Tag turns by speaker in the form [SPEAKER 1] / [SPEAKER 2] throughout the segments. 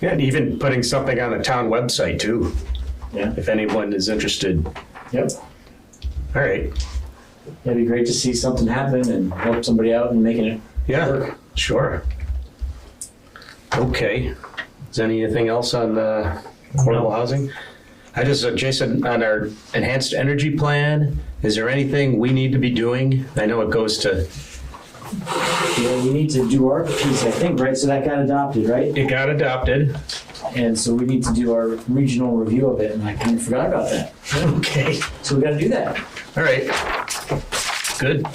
[SPEAKER 1] Yeah, and even putting something on the town website too,
[SPEAKER 2] Yeah,
[SPEAKER 1] if anyone is interested.
[SPEAKER 2] yep.
[SPEAKER 1] All right,
[SPEAKER 2] It'd be great to see something happen and help somebody out and making it.
[SPEAKER 1] yeah, sure. Okay, is there anything else on uh, affordable housing? I just, uh, Jason, on our enhanced energy plan, is there anything we need to be doing? I know it goes to,
[SPEAKER 2] Yeah, we need to do our piece, I think, right? So that got adopted, right?
[SPEAKER 1] it got adopted.
[SPEAKER 2] And so we need to do our regional review of it, and I kind of forgot about that.
[SPEAKER 1] Okay.
[SPEAKER 2] So we got to do that.
[SPEAKER 1] All right, good.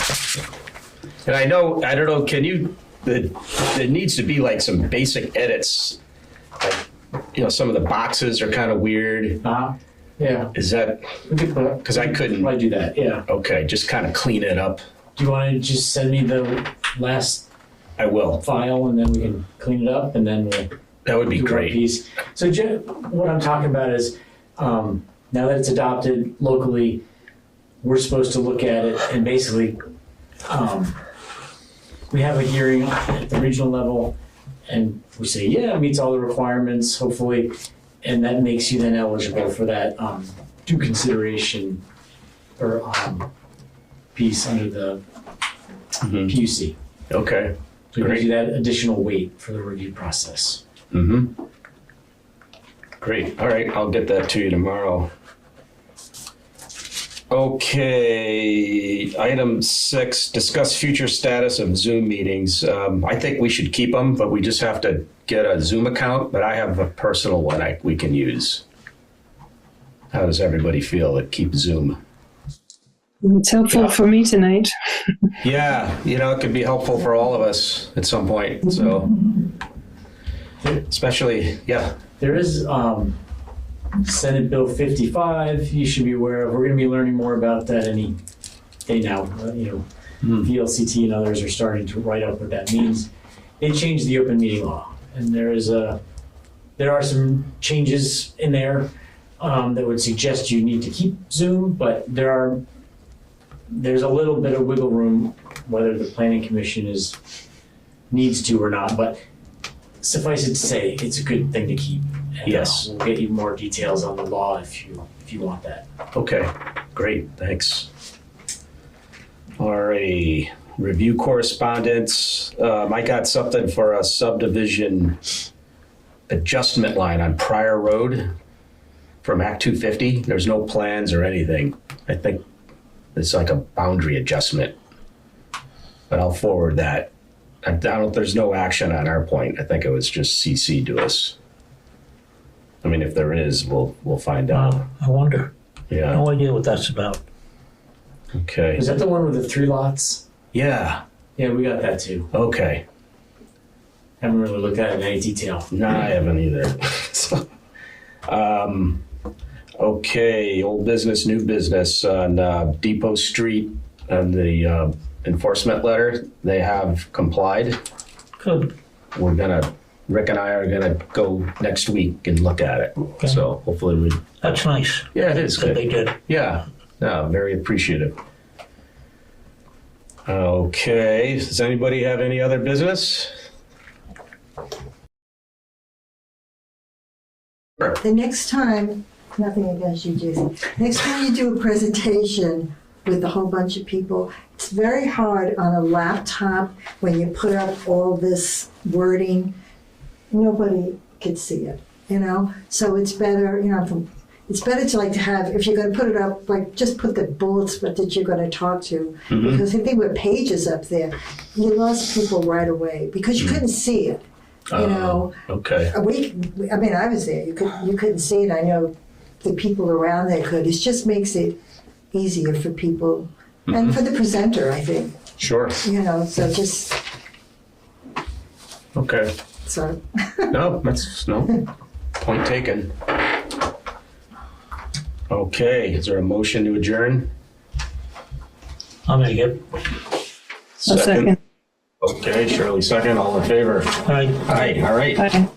[SPEAKER 1] And I know, I don't know, can you, the- there needs to be like some basic edits. Like, You know, some of the boxes are kind of weird.
[SPEAKER 2] Uh-huh. Yeah,
[SPEAKER 1] Is that,
[SPEAKER 2] we could put-
[SPEAKER 1] because I couldn't,
[SPEAKER 2] probably do that. Yeah.
[SPEAKER 1] okay, just kind of clean it up.
[SPEAKER 2] Do you want to just send me the last
[SPEAKER 1] I will.
[SPEAKER 2] file, and then we can clean it up, and then we'll
[SPEAKER 1] That would be
[SPEAKER 2] do our
[SPEAKER 1] great.
[SPEAKER 2] piece. So Jen, what I'm talking about is, um, now that it's adopted locally, we're supposed to look at it and basically, um, we have a hearing at the regional level and we say, yeah, it meets all the requirements, hopefully. And that makes you then eligible for that, um, due consideration or, um, piece under the
[SPEAKER 1] Mhm.
[SPEAKER 2] PUC.
[SPEAKER 1] Okay.
[SPEAKER 2] So it gives
[SPEAKER 1] Great.
[SPEAKER 2] you that additional weight for the review process.
[SPEAKER 1] hmm Great, all right, I'll get that to you tomorrow. Okay, item six, discuss future status of Zoom meetings. Um, I think we should keep them, but we just have to get a Zoom account, but I have a personal one I, we can use. How does everybody feel that keep Zoom?
[SPEAKER 3] It's helpful for me tonight.
[SPEAKER 1] Yeah, you know, it could be helpful for all of us at some point, so. Especially, yeah,
[SPEAKER 2] There is um, Senate Bill 55. You should be aware of. We're going to be learning more about that any day now. Uh, you know,
[SPEAKER 1] Hmm.
[SPEAKER 2] VLCT and others are starting to write up what that means. They changed the open meeting law, and there is a there are some changes in there um, that would suggest you need to keep Zoom, but there are there's a little bit of wiggle room whether the planning commission is needs to or not, but suffice it to say, it's a good thing to keep. And, uh,
[SPEAKER 1] Yes.
[SPEAKER 2] We'll get you more details on the law if you, if you want that.
[SPEAKER 1] Okay, great, thanks. Alrighty, review correspondence. Um, I got something for a subdivision adjustment line on Prior Road from Act two fifty. There's no plans or anything. I think it's like a boundary adjustment. But I'll forward that. I don't, there's no action on our point. I think it was just CC to us. I mean, if there is, we'll, we'll find out.
[SPEAKER 4] Wow, I wonder.
[SPEAKER 1] Yeah,
[SPEAKER 4] No idea what that's about.
[SPEAKER 1] okay.
[SPEAKER 2] Is that the one with the three lots?
[SPEAKER 1] Yeah.
[SPEAKER 2] Yeah, we got that too.
[SPEAKER 1] Okay.
[SPEAKER 2] Haven't really looked at it in any detail.
[SPEAKER 1] No, I haven't either. so, um, okay. Old business, new business on uh, Depot Street and the uh, enforcement letter. They have complied.
[SPEAKER 4] Good.
[SPEAKER 1] We're gonna Rick and I are gonna go next week and look at it. So hopefully we.
[SPEAKER 4] That's nice
[SPEAKER 1] Yeah, it is
[SPEAKER 4] that
[SPEAKER 1] good.
[SPEAKER 4] they did.
[SPEAKER 1] Yeah, no, very appreciative. Okay, does anybody have any other business?
[SPEAKER 5] The next time, nothing against you, Jason. Next time you do a presentation with a whole bunch of people, it's very hard on a laptop when you put up all this wording. Nobody could see it, you know. So it's better, you know. From, it's better to like to have if you're going to put it up, like just put the bullets but that you're going to talk to, because if they were pages up there, you lost people right away because you couldn't see it, you
[SPEAKER 1] Uh,
[SPEAKER 5] know.
[SPEAKER 1] Okay,
[SPEAKER 5] We, I mean, I was there. You could, you couldn't see it. I know the people around there could. It just makes it easier for people and for the presenter. I think
[SPEAKER 1] sure,
[SPEAKER 5] you know. So just
[SPEAKER 1] okay.
[SPEAKER 5] sort of.
[SPEAKER 1] No, that's, no, point taken. Okay, is there a motion to adjourn?
[SPEAKER 4] I'll make it.
[SPEAKER 3] A second.
[SPEAKER 1] Okay, Shirley, second, all in favor?
[SPEAKER 4] All right.
[SPEAKER 1] Aye, all right.
[SPEAKER 3] Bye.